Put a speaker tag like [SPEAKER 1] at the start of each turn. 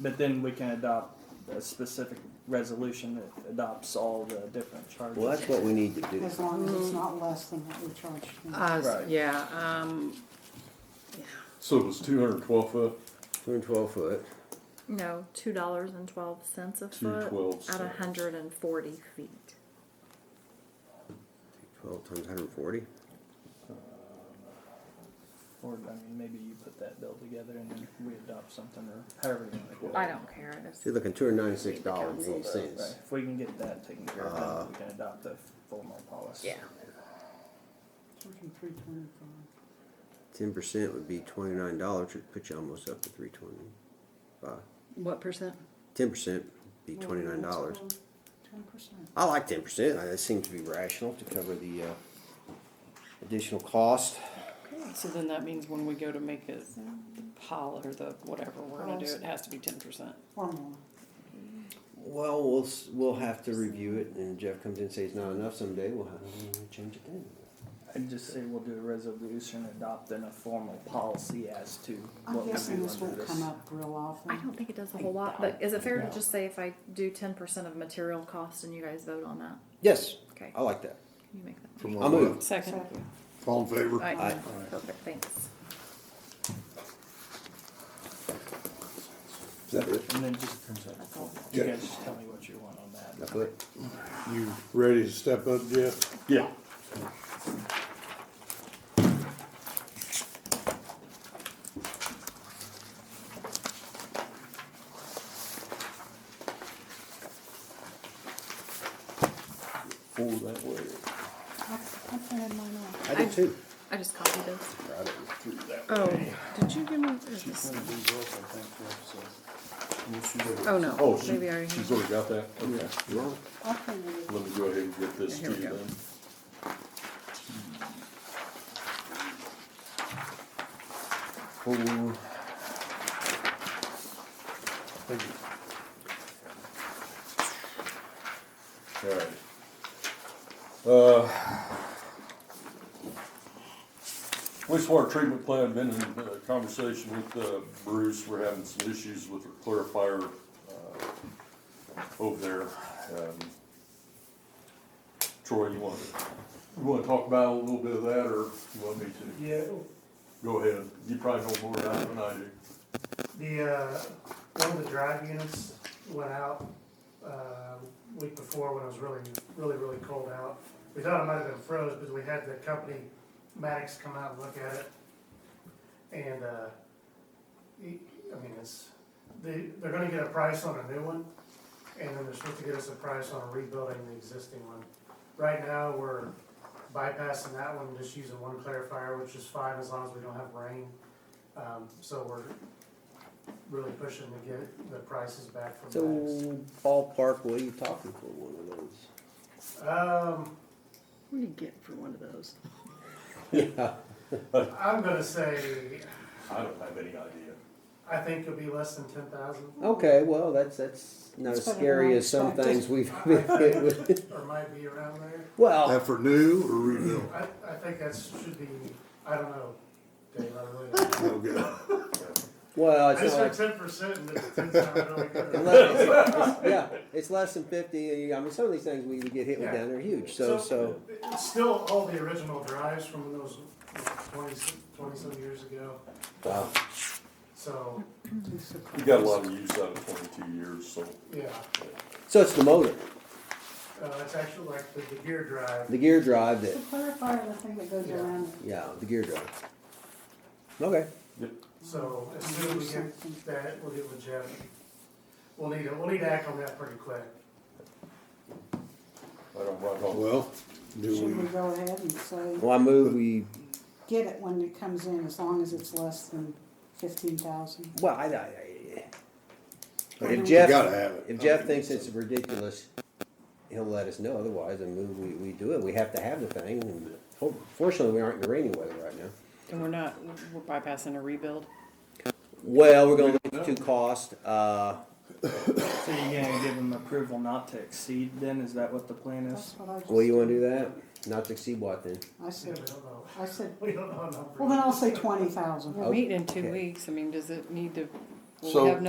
[SPEAKER 1] But then we can adopt a specific resolution that adopts all the different charges.
[SPEAKER 2] Well, that's what we need to do.
[SPEAKER 3] as long as it's not less than what we charged. them.
[SPEAKER 4] Uh, s-
[SPEAKER 1] Right.
[SPEAKER 4] yeah, um,
[SPEAKER 5] So it was two hundred twelve foot,
[SPEAKER 2] Two and twelve foot.
[SPEAKER 6] No, two dollars and twelve cents a foot
[SPEAKER 5] $2.12.
[SPEAKER 6] at a hundred and forty feet.
[SPEAKER 2] Twelve times hundred and forty.
[SPEAKER 1] Or, I mean, maybe you put that bill together and then we adopt something or however you want to do it.
[SPEAKER 6] I don't care. I just-
[SPEAKER 2] So you're looking two hundred ninety-six dollars and
[SPEAKER 1] Right,
[SPEAKER 2] eight cents.
[SPEAKER 1] if we can get that taken care
[SPEAKER 2] Uh-huh.
[SPEAKER 1] of, then we can adopt the formal policy.
[SPEAKER 6] Yeah.
[SPEAKER 3] Charging three twenty-five.
[SPEAKER 2] Ten percent would be twenty-nine dollars, which would put you almost up to three twenty-five.
[SPEAKER 4] what percent?
[SPEAKER 2] Ten percent would be twenty-nine dollars.
[SPEAKER 3] Ten percent.
[SPEAKER 2] I like ten percent. Uh, That seems to be rational to cover the uh, additional cost.
[SPEAKER 4] So then that means when we go to make it the pol, or the whatever we're gonna do, it has to be ten percent.
[SPEAKER 3] Or more.
[SPEAKER 2] Well, we'll s- we'll have to review it, and Jeff comes in and says not enough someday. We'll have to change it then.
[SPEAKER 1] I'd just say we'll do a resolution adopting a formal policy as to
[SPEAKER 3] I'm
[SPEAKER 1] what we
[SPEAKER 3] guessing
[SPEAKER 1] do
[SPEAKER 3] this
[SPEAKER 1] under
[SPEAKER 3] won't come
[SPEAKER 1] this.
[SPEAKER 3] up real often.
[SPEAKER 6] I don't think it does a whole lot, but is it fair to just say if I do ten percent of material cost and you guys vote on that?
[SPEAKER 2] Yes,
[SPEAKER 6] Okay,
[SPEAKER 2] I
[SPEAKER 5] Uh,
[SPEAKER 6] can
[SPEAKER 2] like that.
[SPEAKER 6] you make that?
[SPEAKER 7] From
[SPEAKER 2] I move.
[SPEAKER 4] Second,
[SPEAKER 7] All in favor?
[SPEAKER 6] Alright,
[SPEAKER 2] Aye.
[SPEAKER 6] perfect, thanks.
[SPEAKER 2] Is that it?
[SPEAKER 1] And then just,
[SPEAKER 6] That's all.
[SPEAKER 1] you
[SPEAKER 7] Yeah.
[SPEAKER 1] guys just tell me what you want on that.
[SPEAKER 2] That's it.
[SPEAKER 7] You ready to step up, Jeff?
[SPEAKER 5] yeah.
[SPEAKER 2] Four that way.
[SPEAKER 3] I printed mine off.
[SPEAKER 2] I did too.
[SPEAKER 6] I just copied this.
[SPEAKER 2] I didn't.
[SPEAKER 4] oh, did you give me, this? oh
[SPEAKER 5] Oh,
[SPEAKER 4] no,
[SPEAKER 5] she,
[SPEAKER 6] Maybe I already
[SPEAKER 5] she's
[SPEAKER 6] have-
[SPEAKER 5] already got that, okay.
[SPEAKER 2] Well,
[SPEAKER 3] I printed it.
[SPEAKER 5] Let me go ahead and get this
[SPEAKER 4] Here
[SPEAKER 5] to
[SPEAKER 4] we
[SPEAKER 5] you
[SPEAKER 4] go.
[SPEAKER 5] then.
[SPEAKER 2] four.
[SPEAKER 7] Thank you.
[SPEAKER 5] Alright. Uh, wastewater treatment plant, been in uh, conversation with uh, Bruce, we're having some issues with the clarifier uh, over there. Um, Troy, you want, you wanna talk about a little bit of that, or you want me to?
[SPEAKER 8] Yeah,
[SPEAKER 5] Go ahead, you probably know more about it than I do.
[SPEAKER 8] the, uh, one of the drive units went out, uh, week before when it was really, really, really cold out. We thought it might have been froze, but we had the company Maddox come out and look at it. And, uh, he- I mean, it's, they, they're gonna get a price on a new one, and then they're supposed to get us a price on rebuilding the existing one. Right now, we're bypassing that one, just using one clarifier, which is fine as long as we don't have rain. Um, so we're really pushing to get the prices back from
[SPEAKER 2] So
[SPEAKER 8] Maddox.
[SPEAKER 2] ballpark, what are you talking for one of those?
[SPEAKER 8] Um,
[SPEAKER 4] what do you get for one of those?
[SPEAKER 8] I'm gonna say,
[SPEAKER 5] I don't have any idea.
[SPEAKER 8] I think it'll be less than ten thousand,
[SPEAKER 2] Okay, well, that's, that's not
[SPEAKER 3] That's
[SPEAKER 2] as
[SPEAKER 3] better than
[SPEAKER 2] scary
[SPEAKER 3] I
[SPEAKER 2] as some
[SPEAKER 3] expected.
[SPEAKER 2] things we've been hit with.
[SPEAKER 8] or might be around there.
[SPEAKER 2] Well,
[SPEAKER 7] That for new or rebuild?
[SPEAKER 8] I, I think that should be, I don't know, Dave, I really don't know.
[SPEAKER 7] No good.
[SPEAKER 2] well,
[SPEAKER 8] I
[SPEAKER 2] it's
[SPEAKER 8] just
[SPEAKER 2] not
[SPEAKER 8] heard
[SPEAKER 2] like,
[SPEAKER 8] ten percent and it's ten sounded really good.
[SPEAKER 2] unless it's- it's- yeah, it's less than fifty, I mean, some of these things we get hit with down there are huge, so, so.
[SPEAKER 8] it's Still all the original drives from those twenty, twenty-some years ago,
[SPEAKER 2] Wow.
[SPEAKER 8] so,
[SPEAKER 5] We got a lot of use out of twenty-two years, so.
[SPEAKER 8] yeah.
[SPEAKER 2] So it's the motor,
[SPEAKER 8] Uh, it's actually like the, the gear drive,
[SPEAKER 2] the gear drive that,
[SPEAKER 3] To clarify the thing that goes
[SPEAKER 8] Yeah.
[SPEAKER 3] around.
[SPEAKER 2] yeah, the gear drive. Okay,
[SPEAKER 8] so as soon as we get that, we'll get with Jeff. We'll need, to- we'll need to act on that pretty quick.
[SPEAKER 5] I don't, I don't
[SPEAKER 7] Well, do
[SPEAKER 3] Should we
[SPEAKER 7] we,
[SPEAKER 3] go ahead and say,
[SPEAKER 2] well, I move we,
[SPEAKER 3] get it when it comes in, as long as it's less than fifteen thousand?
[SPEAKER 2] well, I, I, I. If
[SPEAKER 7] we
[SPEAKER 2] Jeff.
[SPEAKER 7] gotta have it.
[SPEAKER 2] If Jeff thinks it's ridiculous, he'll let us know, otherwise, I move, we, we do it, we have to have the thing, and for- fortunately, we aren't in the rainy weather right now.
[SPEAKER 4] And we're not, we're bypassing a rebuild?
[SPEAKER 2] Well, we're gonna look to cost, uh,
[SPEAKER 1] So you're gonna give them approval not to exceed then, is that what the plan
[SPEAKER 3] That's
[SPEAKER 1] is?
[SPEAKER 3] what I just.
[SPEAKER 2] well, you wanna do that? Not to exceed what then?
[SPEAKER 3] I
[SPEAKER 8] Yeah,
[SPEAKER 3] said,
[SPEAKER 8] we don't know.
[SPEAKER 3] I said,
[SPEAKER 8] We don't know numbers.
[SPEAKER 3] well, then I'll say twenty thousand.
[SPEAKER 4] We're meeting in two
[SPEAKER 2] Okay.
[SPEAKER 4] weeks, I mean, does it need to, will
[SPEAKER 7] So-
[SPEAKER 4] we have